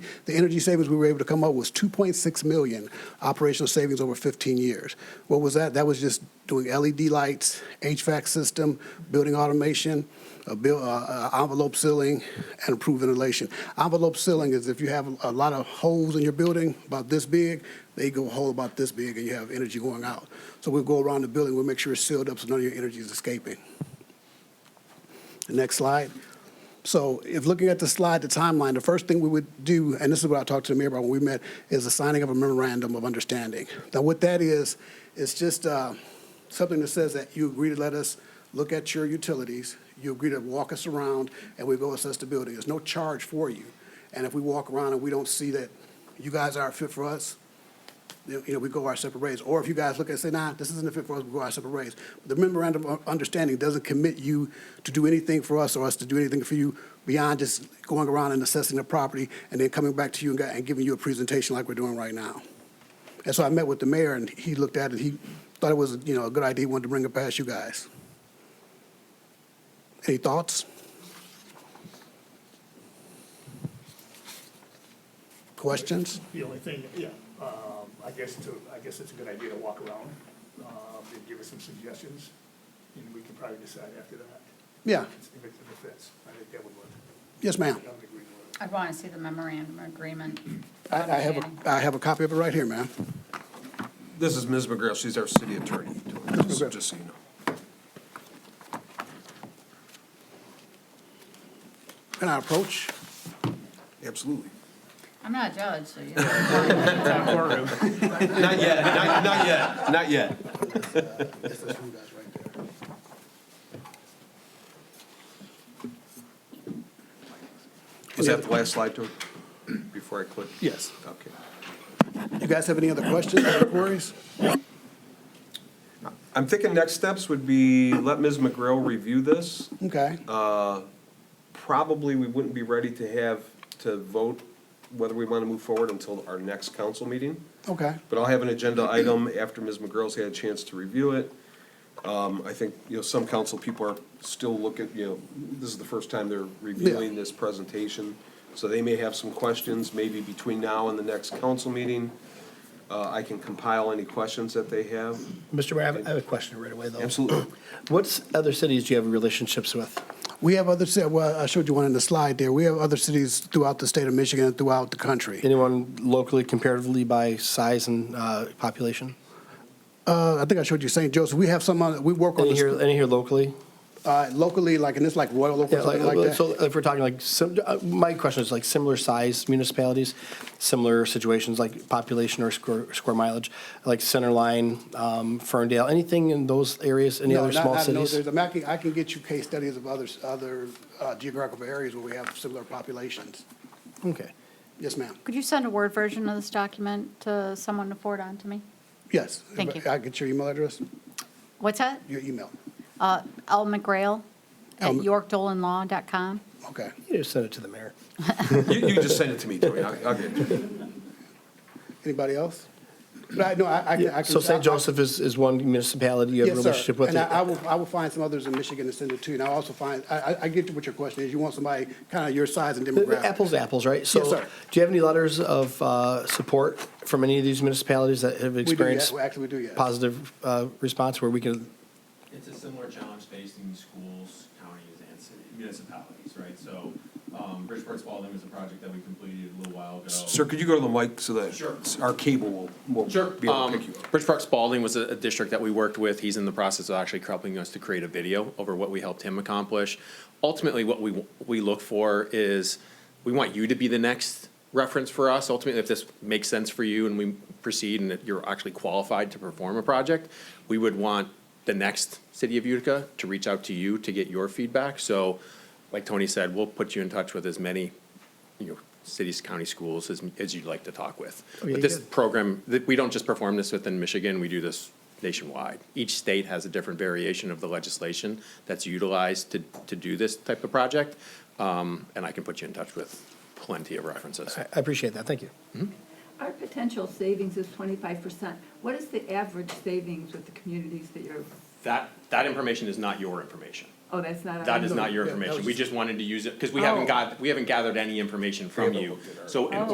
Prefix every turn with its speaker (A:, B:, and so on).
A: The energy savings we were able to come up with was 2.6 million operational savings over 15 years. What was that? That was just doing LED lights, HVAC system, building automation, a bill, uh, uh, envelope sealing, and improved ventilation. Envelope sealing is if you have a lot of holes in your building about this big, they go a hole about this big, and you have energy going out. So we'll go around the building, we'll make sure it's sealed up so none of your energy is escaping. Next slide. So if looking at the slide, the timeline, the first thing we would do, and this is what I talked to the mayor about when we met, is the signing of a memorandum of understanding. Now, what that is, it's just uh, something that says that you agree to let us look at your utilities, you agree to walk us around, and we go assess the building. There's no charge for you. And if we walk around and we don't see that you guys aren't fit for us, you know, we go our separate ways. Or if you guys look and say, nah, this isn't a fit for us, we go our separate ways. The memorandum of understanding doesn't commit you to do anything for us or us to do anything for you beyond just going around and assessing the property and then coming back to you and got- and giving you a presentation like we're doing right now. And so I met with the mayor and he looked at it, he thought it was, you know, a good idea, wanted to bring it past you guys. Any thoughts? Questions?
B: The only thing, yeah, um, I guess to, I guess it's a good idea to walk around, um, and give us some suggestions, and we can probably decide after that.
A: Yeah,
B: If it's a defense, I think that would work.
A: yes, ma'am.
B: I would agree with
C: I'd want to see the memorandum agreement.
A: I, I have
C: understanding.
A: a, I have a copy of it right here, ma'am.
D: This is Ms. McGrath, she's our city attorney,
A: McGrath.
D: just just so you know.
A: Can I approach?
D: Absolutely.
C: I'm not a judge, so you know.
D: Not yet, not, not yet, not yet. Was that the last slide, Tony? Before I click?
A: Yes.
D: Okay.
A: You guys have any other questions or queries?
D: I'm thinking next steps would be let Ms. McGrail review this.
A: Okay,
D: Probably we wouldn't be ready to have, to vote whether we want to move forward until our next council meeting.
A: okay,
D: But I'll have an agenda item after Ms. McGurl's had a chance to review it. Um, I think, you know, some council people are still looking, you know, this is the first time they're reviewing this presentation. So they may have some questions, maybe between now and the next council meeting. Uh, I can compile any questions that they have.
E: Mr. Mayor, I have- I have a question right away, though.
D: Absolutely.
E: What other cities do you have relationships with?
A: we have other, ci- well, I showed you one in the slide there. We have other cities throughout the state of Michigan and throughout the country.
E: Anyone locally comparatively by size and uh, population?
A: Uh, I think I showed you St. Joseph. We have some, other- we work on
E: Any here,
A: this,
E: any here locally?
A: uh, locally, like, and it's like Royal Oak
E: Yeah,
A: or something like
E: So
A: that.
E: if we're talking like, sim- uh, my question is like similar size municipalities, similar situations like population or square, square mileage, like Centerline, um, Ferndale, anything in those areas, any
A: No,
E: other
A: not-
E: small
A: not in those
E: cities?
A: areas. I mean, I can, I can get you case studies of others, other uh, geographical areas where we have similar populations.
E: Okay.
A: Yes, ma'am.
C: Could you send a Word version of this document to someone to forward on to me?
A: Yes.
C: Thank you.
A: I get your email address,
C: What's that?
A: your email.
C: Uh, L. McGrail at
A: L.
C: yorkdolanlaw.com.
A: Okay.
E: You just send it to the mayor.
D: You, you just send it to me, Tony. I'll, I'll get it.
A: Anybody else? But I, no, I, I can. I
E: So
A: can-
E: St. Joseph is, is one municipality you have a
A: Yes, sir.
E: relationship with?
A: And I, I will, I will find some others in Michigan and send it to you. And I'll also find, I, I, I get to what your question is. You want somebody kind of your size and demographic.
E: Apples to apples, right?
A: Yes,
E: So
A: sir.
E: do you have any letters of uh, support from any of these municipalities that have
A: We do, yes.
E: experienced
A: Well, Actually, we do, yes.
E: positive uh, response where we can,
F: It's a similar challenge facing schools, counties, and city municipalities, right? So, um, Bridgeport Spalding was a project that we completed a little while ago.
D: Sir, could you go to the mic so
F: Sure.
D: that our cable will, will be
F: Sure.
D: able
F: um,
D: to pick you up?
F: Bridge Park Spalding was a, a district that we worked with. He's in the process of actually helping us to create a video over what we helped him accomplish. Ultimately, what we, we look for is, we want you to be the next reference for us. Ultimately, if this makes sense for you and we proceed and that you're actually qualified to perform a project, we would want the next city of Utica to reach out to you to get your feedback. So, like Tony said, we'll put you in touch with as many you know, cities, county schools, as, as you'd like to talk with.
E: yeah,
F: But this
E: good.
F: program, that, we don't just perform this within Michigan, we do this nationwide. Each state has a different variation of the legislation that's utilized to, to do this type of project. Um, and I can put you in touch with plenty of references.
E: I I appreciate that, thank you.
G: Our potential savings is twenty-five percent. What is the average savings with the communities that you're,
F: That, that information is not your information.
G: oh, that's not.
F: That is not your
A: Yeah, that
F: information.
A: was-
F: We just wanted to use it, because we haven't
G: Oh.
F: got, we haven't gathered any information from you. So in
G: Oh.